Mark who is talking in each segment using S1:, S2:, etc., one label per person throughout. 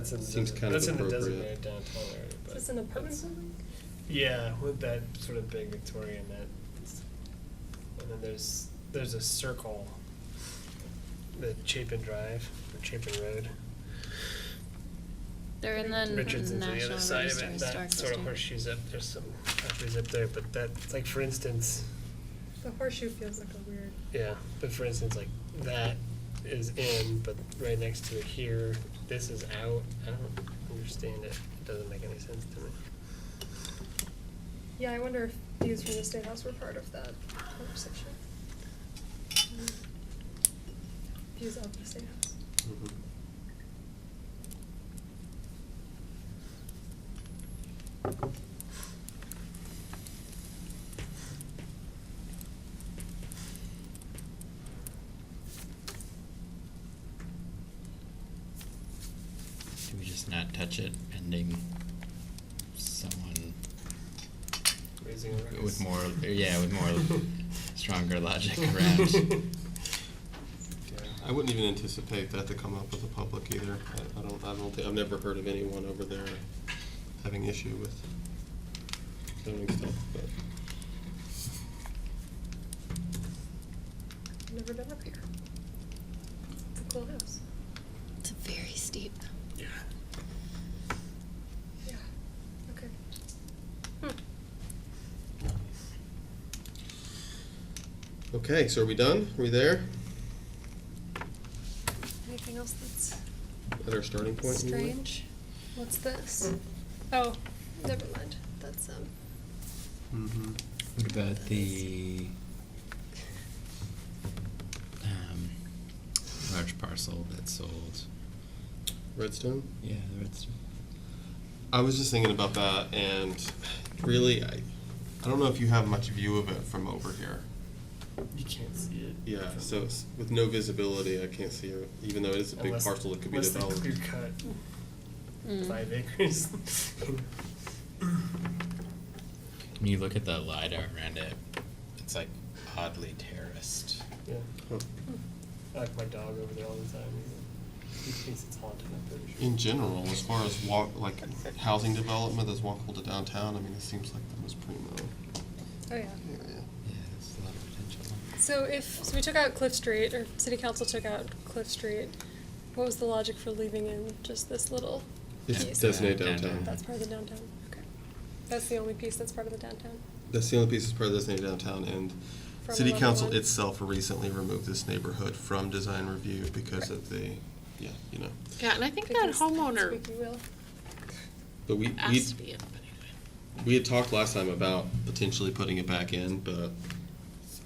S1: That's in,
S2: Seems kind of
S1: that's in the
S2: appropriate.
S1: designated downtown area.
S3: Is
S1: But
S3: this an apartment
S1: that's-
S3: building?
S1: Yeah, with that sort of big Victorian that, and then there's there's a circle, the Chapin Drive or Chapin Road.
S4: They're in the
S1: Richardson's on
S4: National
S1: the other
S4: Register
S1: side of it.
S4: Historic
S1: That sort of
S4: District.
S1: horseshoes up. There's some properties up there, but that like for instance,
S3: The horseshoe feels like a weird.
S1: yeah. But for instance, like that is in, but right next to it here, this is out. I don't understand it. It doesn't make any sense to me.
S3: Yeah, I wonder if views from the State House were part of that conversation. Mm. Views of the State House.
S2: Mhm.
S5: Do we just not touch it pending someone
S1: Raising a ruckus.
S5: with more, yeah, with more stronger logic around?
S2: I wouldn't even anticipate that to come up with the public either. I, I don't, I don't think, I've never heard of anyone over there having issue with zoning stuff, but.
S3: I've never been up here. It's a cool house.
S4: It's very steep.
S1: Yeah.
S3: Yeah. Okay. Hmm,
S2: Okay, so are we done? Are we there?
S3: Anything else that's
S2: At our starting point? you Hmm. mean?
S3: strange? What's this? Oh, never mind. That's um.
S1: Mm-hmm.
S2: Mhm.
S5: What about the, um, large parcel that sold?
S2: Redstone?
S5: Yeah, the redstone.
S2: I was just thinking about that and really, I, I don't know if you have much view of it from over here.
S1: You can't see it.
S2: Yeah,
S1: from-
S2: so it's- with no visibility, I can't see it, even though it is a big
S1: Unless-
S2: parcel that could be
S1: unless they
S2: developed.
S1: clear cut five acres.
S5: When you look at the LiDAR around it, it's like oddly terraced.
S1: yeah,
S2: Huh.
S1: I like my dog over there all the time. He thinks it's haunted. I'm pretty sure.
S2: In general, as far as walk, like housing development that's walkable to downtown, I mean, it seems like the most primo
S3: Oh yeah.
S2: area.
S5: Yeah, there's a lot of potential.
S3: So if so we took out Cliff Street, or City Council took out Cliff Street. What was the logic for leaving in just this little?
S2: It's
S3: piece?
S2: designated
S5: Downtown.
S2: downtown.
S3: That's part of the downtown. Okay. That's the only piece that's part of the downtown.
S2: That's the only piece that's part of designated downtown, and
S3: From
S2: city
S3: level
S2: council
S3: one.
S2: itself recently removed this neighborhood from design review because of the, yeah, you know.
S6: Yeah, and I think that
S3: Because
S6: homeowner
S3: Squeaky wheel.
S2: But we, we,
S6: has to be in, but anyway.
S2: we had talked last time about potentially putting it back in, but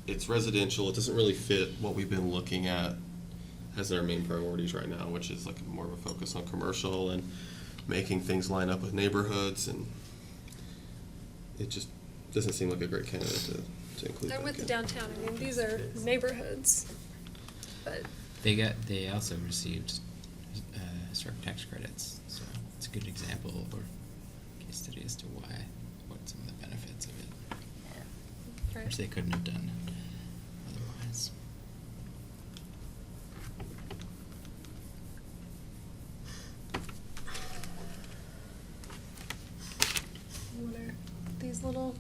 S2: it's residential, it doesn't really fit what we've been looking at as our main priorities right now, which is like more of a focus on commercial and making things line up with neighborhoods and it just doesn't seem like a great candidate to, to include back
S3: And with the
S2: in.
S3: downtown, I mean, these are neighborhoods, but
S5: They got. They also received uh, historic tax credits, so it's a good example or case study as to why, what some of the benefits of it are, which
S3: right.
S5: they couldn't have done otherwise.
S3: What are these little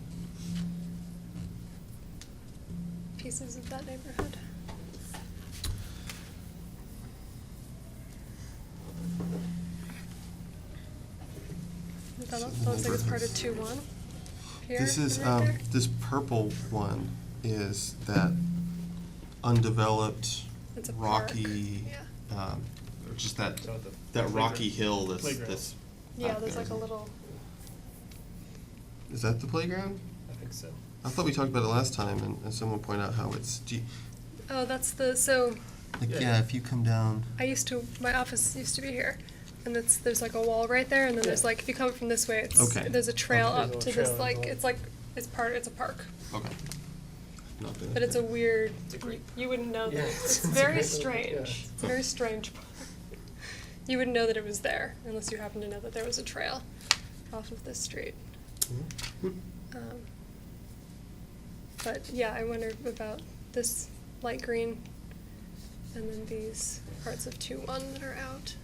S3: pieces of that neighborhood? That
S2: So
S3: looks like it's part
S2: neighborhoods.
S3: of two one. Here
S2: This is,
S3: and right
S2: um,
S3: there.
S2: this purple one is that undeveloped,
S3: It's a park.
S2: rocky,
S3: Yeah.
S2: um, or just that,
S1: So the
S2: that rocky
S1: playground-
S2: hill that's,
S1: playground.
S2: that's.
S3: Yeah,
S2: back
S3: there's
S2: there,
S3: like a
S2: isn't it?
S3: little,
S2: Is that the playground?
S1: I think so.
S2: I thought we talked about it last time, and, and someone pointed out how it's, do you,
S3: oh, that's the, so
S2: like,
S1: Yeah.
S2: yeah, if you come down.
S3: I used to, my office used to be here, and it's, there's like a wall right there, and then there's
S1: Yeah.
S3: like, if you come from this way, it's,
S2: Okay.
S3: there's a trail
S1: Okay.
S3: up
S1: There's a
S3: to
S1: little
S3: this,
S1: trail
S3: like,
S1: involved.
S3: it's like, it's part, it's a park.
S2: Okay. Not been.
S3: But it's a weird,
S1: It's a
S3: you,
S1: great-
S3: you wouldn't know
S1: Yeah,
S3: that, it's
S1: it's a
S3: very
S1: great little- yeah.
S3: strange, it's a very strange park. You wouldn't know that it was there, unless you happen to know that there was a trail off of this street.
S1: Mm-hmm.
S3: Um, But yeah, I wonder about this light green and then these parts of two one that are out.